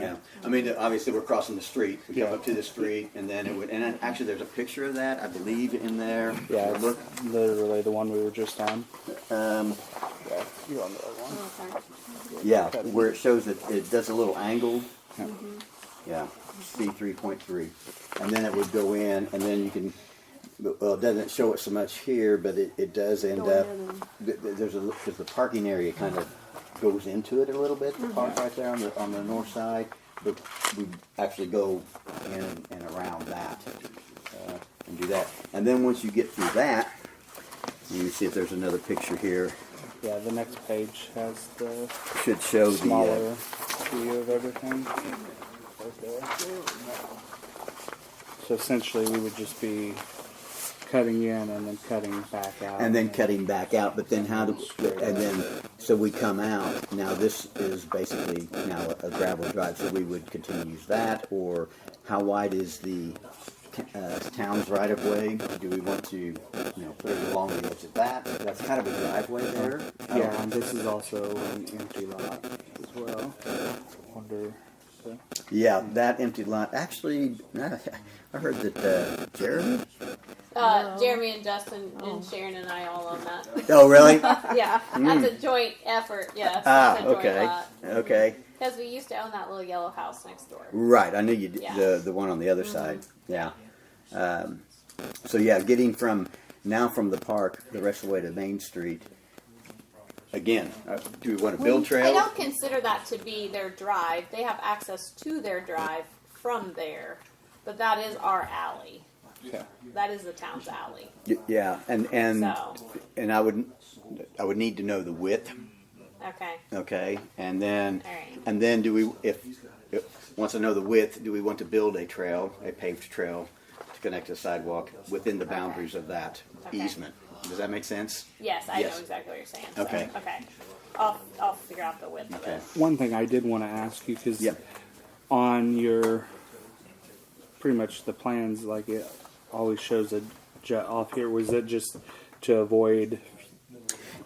down. I mean, obviously, we're crossing the street, we come Yeah. up to the street, and then it would, and actually, there's a picture of that, I believe, in there. Yeah, it's literally the one we were just on. Um, Yeah, you're on the other one. yeah, where it shows that it does a little angle. Yeah, C three point three, and then it would go in, and then you can, well, it doesn't show it so much here, but it, it does end Going up. in th- th- There's a, there's the parking area kind of goes into it a little bit, the park right there on the, on the north side, but we actually go in and around that. uh, And do that, and then once you get through that, you see if there's another picture here, Yeah, the next page has the should show the. uh, smaller view of everything. Right there. So essentially, we would just be cutting in and then cutting back out. and then cutting back out. But then how do and then so we come out. Now this is basically now a gravel drive, so we would continue to use that. Or how wide is the uh, town's right of way? Do we want to you know put it along the edge of that? That's kind of a driveway there. I don't- Yeah, and this is also an empty lot as well. Wonder. Yeah, that empty lot. Actually, I heard that uh, Jeremy. Uh, Jeremy and Justin and Sharon and I all own that. Oh, really? yeah, that's a joint effort. Yes, Mm. Ah, that's a joint okay, okay. Because we used to own that little yellow house next door. Right, I knew you did Yeah. the the one on the other Mm-hmm. side. Yeah. Um, so yeah, getting from now from the park the rest of the way to Main Street. Again, uh, do we want to build Mm, I trail? don't consider that to be their drive. They have access to their drive from there, but that is our alley. Yeah. That is the town's alley. Y- Yeah, and and So, and I would I would need to know the width. okay. Okay, and then All right. and then do we if, if once I know the width, do we want to build a trail, a paved trail, to connect the sidewalk within the boundaries of that Okay. easement? Does that make sense? Yes, I Yes. know exactly what you're saying. so, Okay. Okay. I'll, I'll figure out the width of Okay. it. One thing I did want to ask you because Yep. on your pretty much the plans, like it always shows a jet off here. Was it just to avoid?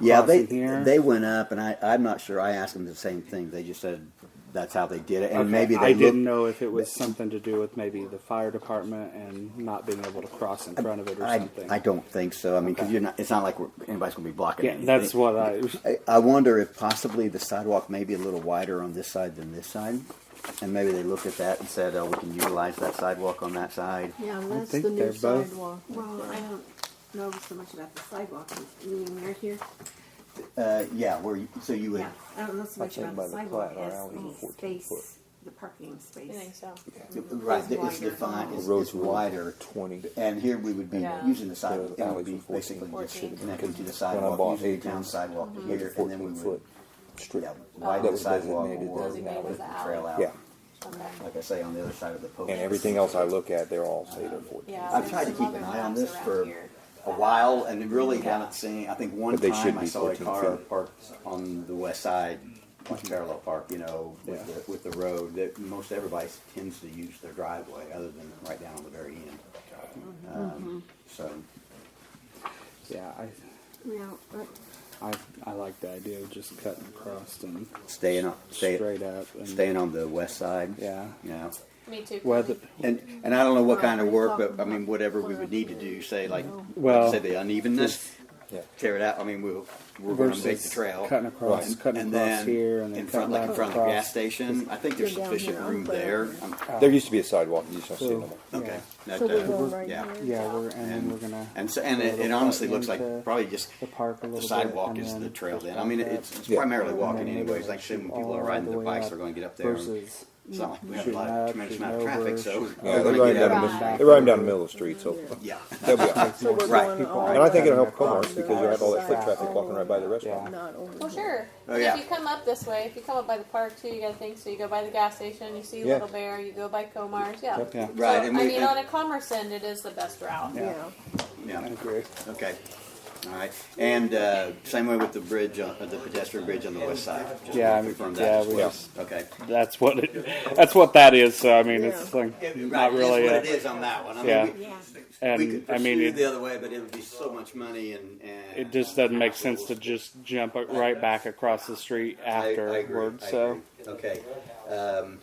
Yeah, they crossing here? they went up, and I I'm not sure. I asked them the same thing. They just said that's how they did it, and Okay, maybe they I didn't looked- know if it was something to do with maybe the fire department and not being able to cross in front of it or I, something. I don't think so. I mean, because you're not. It's not like we're, anybody's going to be blocking. yeah, anything. that's what I. I, I wonder if possibly the sidewalk may be a little wider on this side than this side, and maybe they looked at that and said, "Oh, we can utilize that sidewalk on that side." Yeah, well, that's think the new they're both- sidewalk. Well, I don't know so much about the sidewalk, you mean right here? Uh, yeah, where you, so you would. Yeah, I don't know so much think about by the the sidewalk plat, our as alley's the 14 foot. space, the parking You think space. so? Right, It's it's wider. defined. It's, Roads it's were wider. 20. And here we would be Yeah. using the sidewalk. The It would alleys be were 14. basically just Fourteen. connected to the When I bought sidewalk, Mm-hmm. using the eighteen. town sidewalk to Make here, it and then we 14 would, foot strip. yeah, widen That the was sidewalk designated or as an alley. trail out. Yeah, Okay. Like I say, on the other side of the post. and everything else I look at, they're all state or fourteen. Yeah. I've tried to there's keep some an other eye on maps this around for here. a while, and really haven't seen, I think one But they should time I be saw a 14 car feet. parked on the west side, like parallel park, you know, with Yeah. the, with the road, that most everybody tends to use their driveway, other than right down on the very end. Um, So, yeah, Yeah, but I, I I like the idea of just cutting across and staying on, stay, straight up and staying on the west side. Yeah. Yeah. Me too. Whether And, and I don't know what kind of work, but I mean, whatever we would need to do, say like, Well, say the unevenness, Yeah. tear it out, I mean, we'll, we're gonna versus make the trail. cutting across, And- cutting and across then here, and then in front, cutting like back in front of the across. gas station, I think there's Go down sufficient here. room there. I'm- There used to be a sidewalk, you just don't see it So, no more. Okay. That, so we're uh, going right yeah. here. Yeah, we're and, then And- we're gonna And so, and it, it honestly looks like probably just the park a little the bit, sidewalk and is then the trail then. I mean, it's, it's Yeah. primarily and walking then anyways, it'll like shouldn't shoot people are all riding their way bikes, up they're gonna get up there. and- versus It's not like we have a shooting lot, up, of tremendous amount of shooting over, traffic, so. shooting Yeah, they're gonna riding get down, out. the Right. mid- they're riding down the middle of the street, so Yeah. they'll be all right. So we're Right. going People all And I think the it'll way help Comar's because you have all that foot traffic walking right by the up, restaurant. Not over. here. Well, sure. Oh, But yeah. If you come up this way, if you come up by the park too, you got to think. So you go by the gas station, you see Yeah. Little Bear, you go by Comar's. Yeah. Yeah. Right, So, and I we- mean, and- on a commerce end, it is the best route. Yeah, Yeah. agree. Okay. All right. And uh, same way with the bridge, on, uh, the pedestrian bridge on the west side. Just Yeah, wanna I'm- confirm yeah, that as we well. just- Okay. That's what it. That's what that is. So I mean, it's Yeah. like It- not right, really. That's what it A, is on that one. I yeah. mean, we- yeah. and we could I mean, pursue it, the other way, but it would be so much money and, and it just doesn't make sense to just jump right back across the street I- I agree, afterward. I So agree. okay. Um,